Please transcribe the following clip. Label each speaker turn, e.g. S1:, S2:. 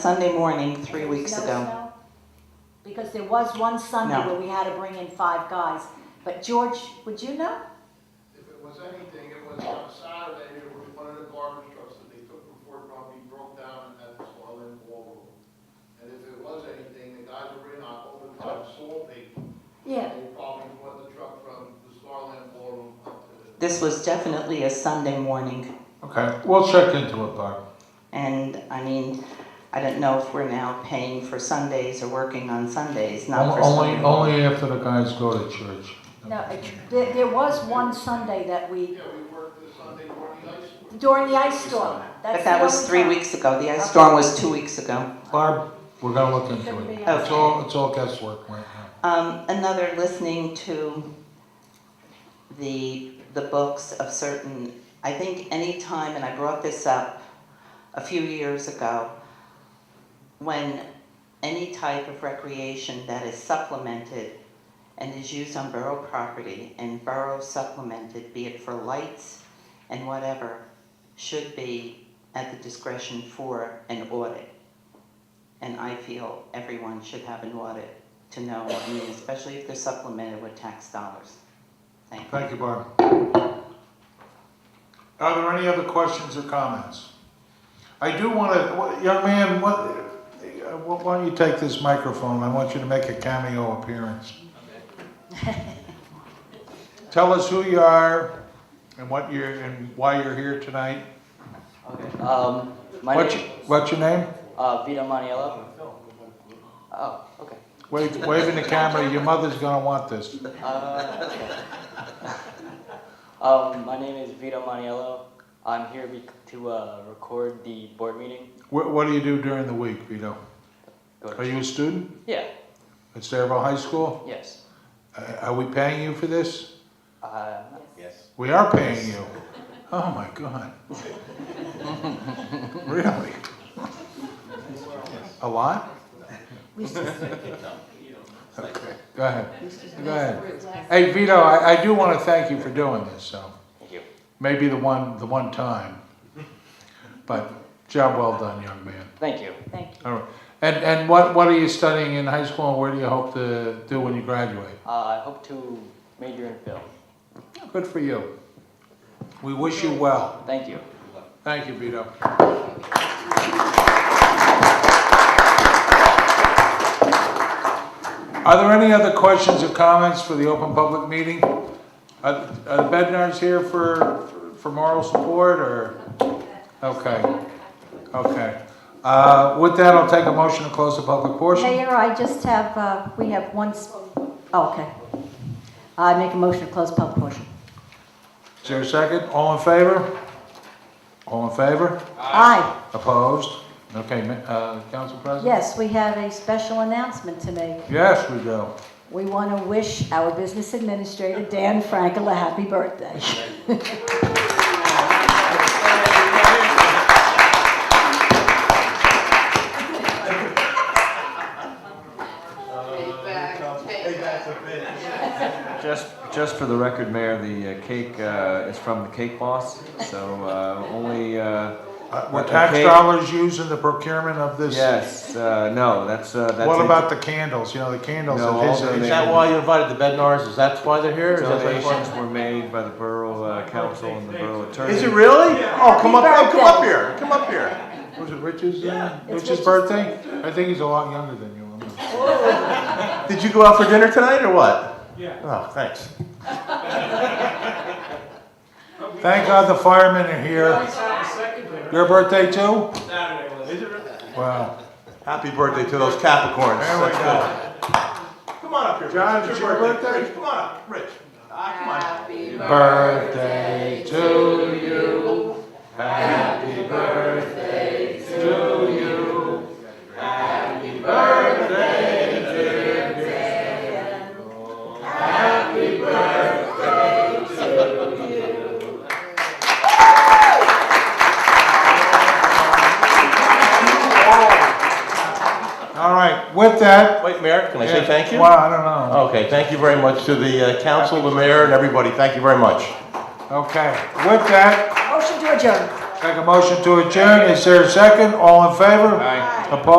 S1: Sunday morning, three weeks
S2: No
S1: ago.
S2: snow? Because there was one Sunday
S1: No.
S2: where we had to bring in five guys, but George, would you know?
S3: If it was anything, it was on Saturday, there was one of the garbage trucks that they took from Fort Rumpke, broke down and had the soil in the wall. And if it was anything, the guys were in on overtime salting.
S2: Yeah.
S3: They probably brought the truck from the Starland Ballroom up to the.
S1: This was definitely a Sunday morning,
S4: Okay, we'll check into it, Bob.
S1: and I mean, I don't know if we're now paying for Sundays or working on Sundays, not for
S4: Only,
S1: Sunday.
S4: only after the guys go to church.
S2: No, it- there, there was one Sunday that we,
S3: Yeah, we worked the Sunday morning ice storm.
S2: during the ice storm. That's
S1: But that
S2: the
S1: was
S2: only
S1: three
S2: time.
S1: weeks ago, the ice
S2: Okay.
S1: storm was two weeks ago.
S4: Barb, we're gonna look into
S2: Shouldn't be
S4: it.
S2: on
S4: It's all, it's all guesswork right now.
S1: Um, another, listening to the, the books of certain, I think any time, and I brought this up a few years ago, when any type of recreation that is supplemented and is used on borough property and borough supplemented, be it for lights and whatever, should be at the discretion for an audit. And I feel everyone should have an audit to know, I mean, especially if they're supplemented with tax dollars. Thank you.
S4: Thank you, Barb. Are there any other questions or comments? I do wanna, what- young man, what, uh, why don't you take this microphone? I want you to make a cameo appearance. Tell us who you are and what you're, and why you're here tonight.
S5: Okay. Um, my
S4: What's,
S5: name
S4: what's your name?
S5: uh, Vito Maniello. Oh, okay.
S4: Wave, waving the camera, your mother's gonna want this.
S5: Uh, um, my name is Vito Maniello. I'm here bec to uh, record the board meeting.
S4: What, what do you do during the week, Vito?
S5: Go to-
S4: Are you a student
S5: Yeah.
S4: at Saraville High School?
S5: Yes.
S4: Uh, Are we paying you for this?
S5: Uh,
S4: We are paying you. Oh, my God. Really? A lot? Okay, go ahead. Go ahead. Hey, Vito, I, I do wanna thank you for doing this, so.
S5: thank you.
S4: Maybe the one, the one time. But job well done, young man.
S5: Thank you.
S2: Thank you.
S4: All right. And, and what, what are you studying in high school and where do you hope to do when you graduate?
S5: Uh, I hope to major in film.
S4: Good for you. We wish you well.
S5: Thank you.
S4: Thank you, Vito. Are there any other questions or comments for the open public meeting? Are, are the Bednar's here for, for moral support or? Okay, okay. Uh, with that, I'll take a motion to close the public portion.
S6: Mayor, I just have, uh, we have one, s- oh, okay. I make a motion to close public portion.
S4: Is there a second? All in favor? All in favor?
S6: Aye.
S4: Opposed? Okay, ma- uh, Council President?
S6: Yes, we have a special announcement to make.
S4: Yes, we do.
S6: We want to wish our business administrator, Dan Frankel, a happy birthday.
S7: Just, just for the record, Mayor, the uh, cake uh, is from the Cake Boss, so uh, only, uh,
S4: Uh, Were
S7: Okay.
S4: tax dollars used in the procurement of this?
S7: yes, uh, no, that's, uh, that's.
S4: What
S7: it.
S4: about the candles, you know, the candles
S7: No,
S4: at his uh,
S7: all
S4: age?
S7: donated. That why
S8: you invited the Bednars, is that why they're here?
S7: Donations were made by the Borough uh, Council and the Borough Attorney.
S8: Is it really? Oh, come up, oh, come up
S6: birthday.
S8: here, come up here.
S4: Was it Rich's, uh,
S6: It's
S4: Rich's
S6: Rich's
S4: birthday? I think he's a lot younger than you. I'm not-
S8: Did you go out for dinner tonight or what? Yeah. Oh, thanks.
S4: Thank God the firemen are here. Your birthday too? Wow.
S8: Happy birthday to those Capricorns.
S4: There we
S8: That's
S4: go.
S8: good. Come on up here.
S4: John,
S8: Rich.
S4: it's
S8: It's
S4: your birthday?
S8: Rich, come on up, Rich. Ah, come on.
S4: Birthday to you. Happy birthday to you. Happy birthday, dear Happy birthday to you. All right, with that.
S8: Wait, Mayor, can I say thank you?
S4: Well, I don't know.
S8: Okay, thank you very much to the uh, council, the mayor, and everybody. Thank you very much.
S4: Okay, with that,
S6: Motion to adjourn.
S4: take a motion to adjourn, is there a second? All in favor? Aye. Opposed?